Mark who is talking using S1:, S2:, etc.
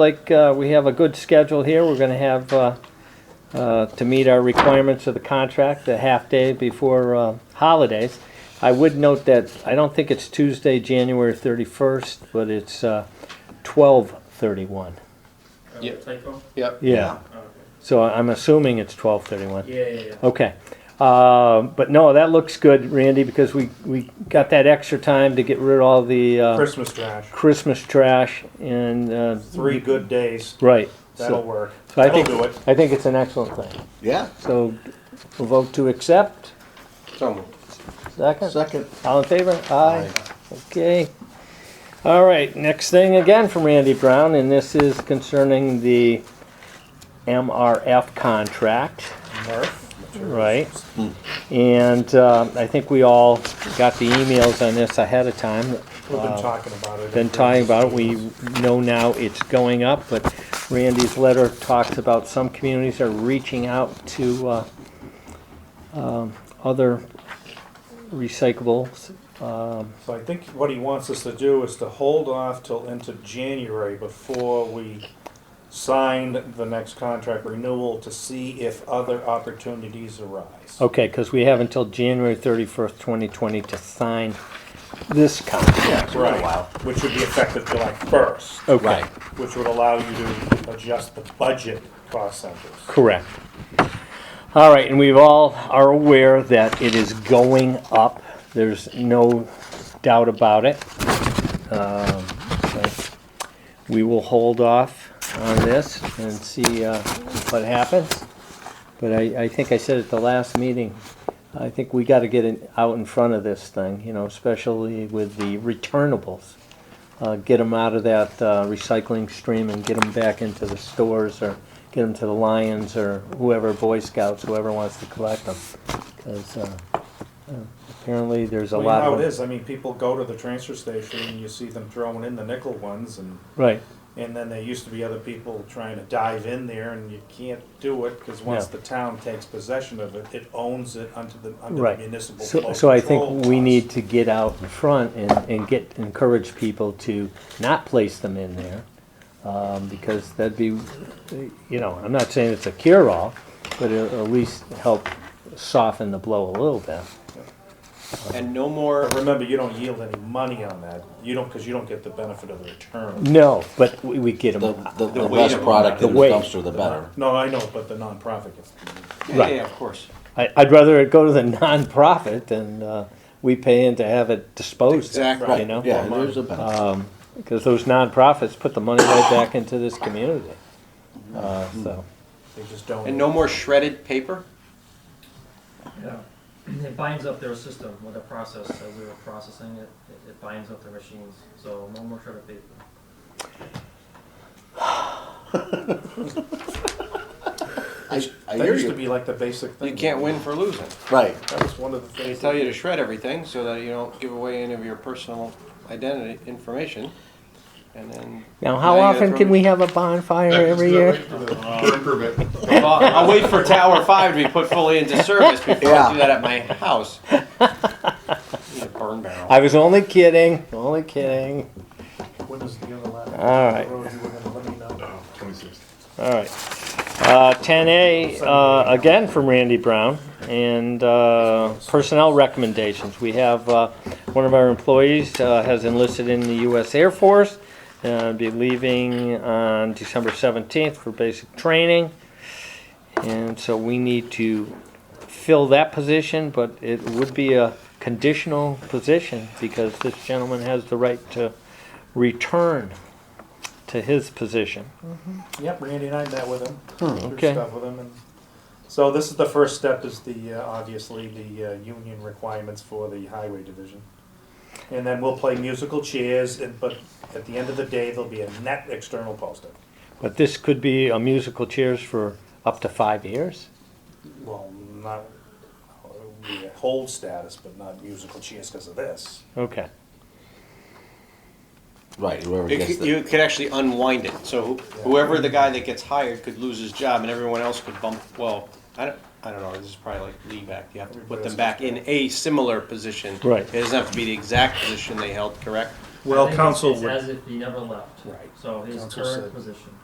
S1: like uh, we have a good schedule here. We're going to have, uh, uh, to meet our requirements of the contract, a half day before uh, holidays. I would note that I don't think it's Tuesday, January 31st, but it's uh, 12/31.
S2: Uh,
S3: Yep.
S2: Typo?
S3: Yep.
S1: Yeah,
S2: Oh, okay.
S1: so I'm assuming it's 12/31.
S2: Yeah, yeah, yeah.
S1: Okay. Uh, But no, that looks good, Randy, because we, we got that extra time to get rid of all the uh,
S4: Christmas trash.
S1: Christmas trash and, uh,
S4: Three good days.
S1: right. So-
S4: That'll work.
S1: So I
S4: That'll
S1: think,
S4: do it.
S1: I think it's an excellent thing.
S3: Yeah.
S1: So we'll vote to accept.
S3: So moved.
S1: Second?
S3: Second.
S1: All in favor? Aye. Okay. All right, next thing again from Randy Brown, and this is concerning the MRF contract.
S4: Murph.
S1: Right. And uh, I think we all got the emails on this ahead of time,
S4: We've been talking about it.
S1: Uh, been talking about it. We know now it's going up, but Randy's letter talks about some communities are reaching out to uh, um, other recyclables. Um,
S4: So I think what he wants us to do is to hold off till into January before we sign the next contract renewal to see if other opportunities arise.
S1: Okay, because we have until January 31st, 2020 to sign this contract.
S4: Right, which would be effective July first,
S1: Okay,
S4: which would allow you to adjust the budget cost centers.
S1: correct. All right, and we've all are aware that it is going up. There's no doubt about it. Um, but We will hold off on this and see uh, what happens. But I, I think I said at the last meeting, I think we gotta get in- out in front of this thing, you know, especially with the returnables. Uh, Get them out of that uh, recycling stream and get them back into the stores or get them to the Lions or whoever, Boy Scouts, whoever wants to collect them. Because uh, apparently there's a
S4: Well,
S1: lot
S4: you know
S1: of.
S4: how it is, I mean, people go to the transfer station and you see them throwing in the nickel ones and
S1: Right.
S4: And then there used to be other people trying to dive in there, and you can't do it, because once
S1: Yeah.
S4: the town takes possession of it, it owns it under the, under the
S1: Right.
S4: municipal flow
S1: So, so I think
S4: control
S1: we
S4: laws.
S1: need to get out in front and, and get, encourage people to not place them in there. Um, because that'd be, you know, I'm not saying it's a cure-all, but it'll at least help soften the blow a little bit.
S3: And no more.
S4: But remember, you don't yield any money on that, you don't, because you don't get the benefit of the return.
S1: No, but we, we get
S5: The,
S1: them,
S5: the, the
S3: weight
S5: less
S3: of-
S5: product
S1: the
S5: in the
S1: weight.
S5: dumpster, the better.
S4: No, I know, but the nonprofit gets,
S3: Yeah,
S1: Right.
S3: yeah, of course.
S1: I, I'd rather it go to the nonprofit than, uh, we pay in to have it disposed of,
S3: Exactly.
S1: you know?
S5: Yeah, there's a benefit.
S1: Because those nonprofits put the money right back into this community, uh, so.
S4: they just don't.
S3: And no more shredded paper.
S2: Yeah. It binds up their system with the process, as we were processing it, it- it binds up the machines, so no more shredded paper.
S5: I, I
S4: That
S5: hear
S4: used to
S5: you.
S4: be like the basic thing.
S3: You can't win for losing.
S5: Right.
S4: That was one of the
S3: They
S4: things.
S3: tell you to shred everything so that you don't give away any of your personal identity information. And then
S1: Now, how
S3: Yeah, you
S1: often
S3: gotta
S1: can
S3: throw
S1: we have a bonfire every year?
S3: Well, I'll wait for Tower Five to be put fully into service before I
S5: Yeah.
S3: do that at my house. Need a burn barrel.
S1: I was only kidding, only kidding.
S4: When was the other last?
S1: All right.
S4: road you were gonna let me know?
S1: All right. Uh, 10A, uh, again from Randy Brown, and uh, personnel recommendations. We have, uh, one of our employees uh, has enlisted in the U.S. Air Force, uh, be leaving on December 17th for basic training. And so we need to fill that position, but it would be a conditional position because this gentleman has the right to return to his position.
S4: Yep, Randy and I met with him. through
S1: okay.
S4: Stuff with him, and so this is the first step. Is the uh, obviously the uh, union requirements for the highway division, and then we'll play musical chairs. And but at the end of the day, there'll be a net external posting.
S1: But this could be a musical chairs for up to five years?
S4: Well, not it'll be a hold status, but not musical chairs because of this.
S1: Okay,
S5: Right. Whoever
S3: It
S5: gets
S3: could-
S5: the,
S3: You could actually unwind it, so wh- whoever the guy that gets hired could lose his job and everyone else could bump, well, I don't, I don't know, this is probably like lead back, you have to put them back in a similar position.
S1: Right.
S3: It doesn't have to be the exact position they held, correct?
S2: I
S6: Well,
S2: think it's-
S6: council
S2: It's
S6: would-
S2: as if he never left,
S3: Right.
S2: so his
S4: Council
S2: current
S4: said-
S2: position.